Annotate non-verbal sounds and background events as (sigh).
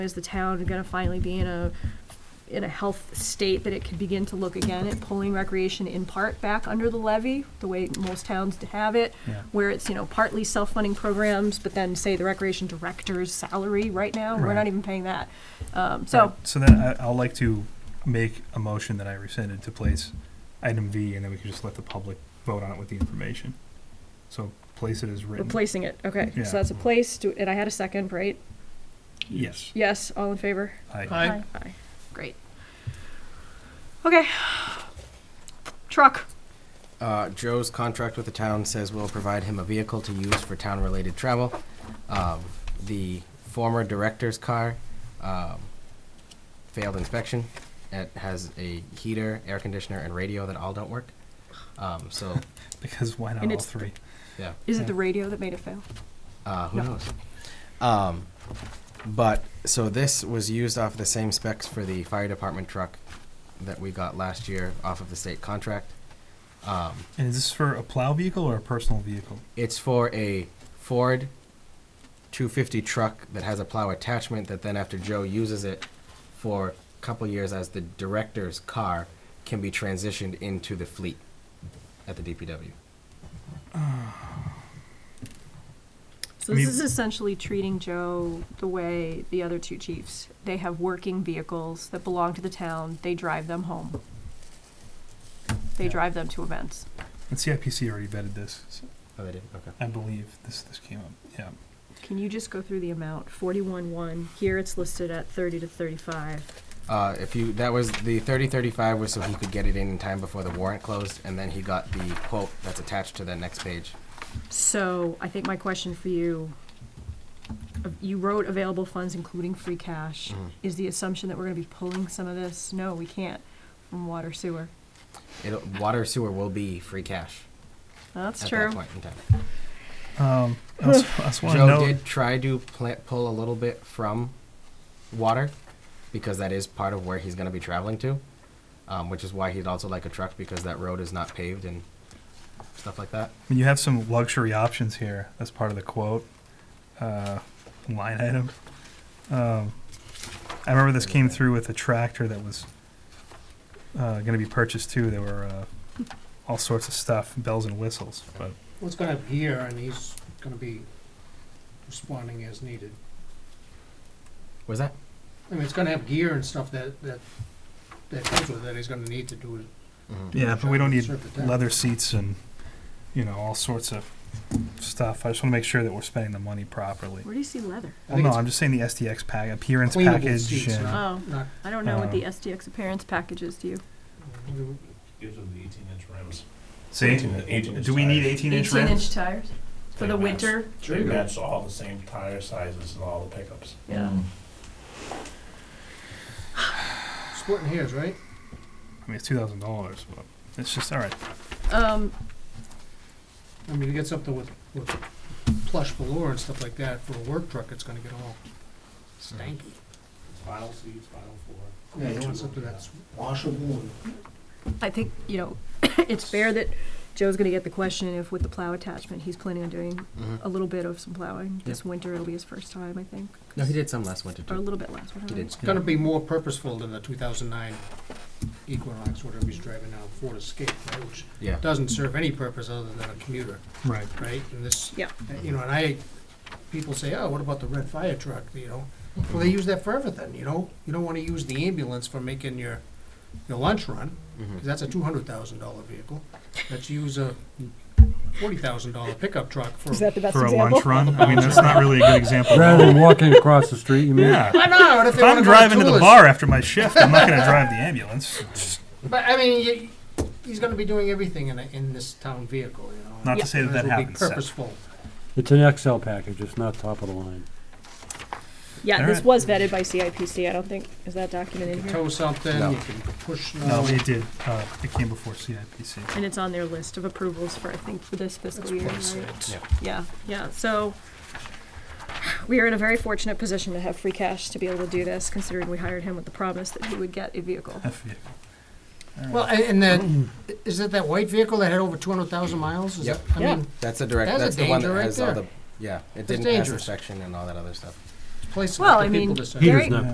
Is the town gonna finally be in a, in a health state that it could begin to look again at pulling recreation in part back under the levy, the way most towns have it? Yeah. Where it's, you know, partly self-funding programs, but then say the recreation director's salary right now, we're Right. not even paying that. Um, so, So then I, I'll like to make a motion that I rescinded to place item V, and then we can just let the public vote on it with the information. So place it as written. replacing it, okay, Yeah. so that's a place, do- and I had a second, right? Yes. Yes, all in favor? I, Aye. Aye. Great. Okay. Truck. Uh, Joe's contract with the town says we'll provide him a vehicle to use for town-related travel. Um, the former director's car, um, failed inspection. It has a heater, air conditioner, and radio that all don't work. Um, so, because why not And all it's- three? yeah. Is it Yeah. the radio that made it fail? Uh, who No. knows? Um, but so this was used off the same specs for the fire department truck that we got last year off of the state contract. Um, And is this for a plow vehicle or a personal vehicle? it's for a Ford 250 truck that has a plow attachment that then after Joe uses it for a couple years as the director's car can be transitioned into the fleet at the DPW. So I this mean- is essentially treating Joe the way the other two chiefs. They have working vehicles that belong to the town. They drive them home. They Yeah. drive them to events. And CIPC already vetted this, so Oh, they did? Okay. I believe this this came up. Yeah. Can you just go through the amount? Forty-one one. Here it's listed at thirty to thirty-five. Uh, if you, that was, the 3035 was so he could get it in in time before the warrant closed, and then he got the quote that's attached to the next page. So I think my question for you, uh, you wrote available funds including free cash. Mhm. Is the assumption that we're gonna be pulling some of this? No, we can't from water sewer. It'll, water sewer will be free cash That's at true. that point in time. Um, I also, I also want to Joe know. did try to pla pull a little bit from water because that is part of where he's going to be traveling to, um, which is why he'd also like a truck because that road is not paved and stuff like that. I mean, you have some luxury options here. That's part of the quote uh, line item. Um, I remember this came through with a tractor that was uh, going to be purchased too. There were uh, all sorts of stuff, bells and whistles. But What's gonna appear, and he's gonna be responding as needed. Was that? I mean, it's gonna have gear and stuff that, that, that comes with it, he's gonna need to do it. yeah, but we don't need Serve the town. leather seats and you know all sorts of stuff. I just want to make sure that we're spending the money properly. Where do you see leather? I Well, think no, it's I'm just saying the SDX pack appearance Cleanable package. seats, and- right? Oh, Not, I don't know what the Uh, SDX appearance package is, do you? Gives them the eighteen inch rims. See, 18 18 do we need inch 18 inch rims? tires? They For the match- winter? They match all the same tire sizes and all the pickups. Yeah. splitting hairs, right? I mean, it's two thousand dollars, but it's just all right. Um, I mean, he gets up there with, with plush velour and stuff like that, for a work truck, it's gonna get all stanky. File seats, file four. Yeah, he wants something that's washable and I think, you know, (coughs) it's fair that Joe's gonna get the question if with the plow attachment, he's planning on doing Mm-hmm. a little bit of some plowing. This winter, it'll be his first time, I think, No, he did some last winter or a too. little bit last. He did. It's gonna be more purposeful than the two thousand nine Equinox, whatever he's driving now, Ford Escape, right, which Yeah. doesn't serve any purpose other than a commuter, Right. right? And this, Yeah. you know, and I, people say, oh, what about the red fire truck, you know? Well, they use that for everything, you know? You don't wanna use the ambulance for making your, your lunch run, Mm-hmm. 'cause that's a two hundred thousand dollar vehicle. Let's use a forty thousand dollar pickup truck for. the best for a lunch run. I mean, that's not really a good example. Rather than walking across the street, you mean? yeah. I know, but if If they wanna I'm go to driving to the Toulouse- bar after my shift, I'm not going to drive the ambulance. But I mean, you, he's going to be doing everything in, a, in this town vehicle, you know. Not to Yeah. say that Might as that well be happens. Seth. Purposeful. It's an XL package, it's not top of the line. Yeah, this Alright. was vetted by CIPC, I don't think, is that documented You in can here? tow something, No. you can push No, snow. it did. Uh, it came before CIPC. And it's on their list of approvals for, I think, for this fiscal year, right? Yeah. Yeah, yeah, so we are in a very fortunate position to have free cash to be able to do this, considering we hired him with the promise that he would get a vehicle. F E you. All right. well, and, and then, is it that white vehicle that had over 200,000 miles? Is Yep. It, I Yeah. mean, That's the direct. That's a That's, the one that danger right has all there. the. Yeah, it didn't pass dangerous. inspection and all that other stuff. places Well, for I people mean, to send. Peter's Very- not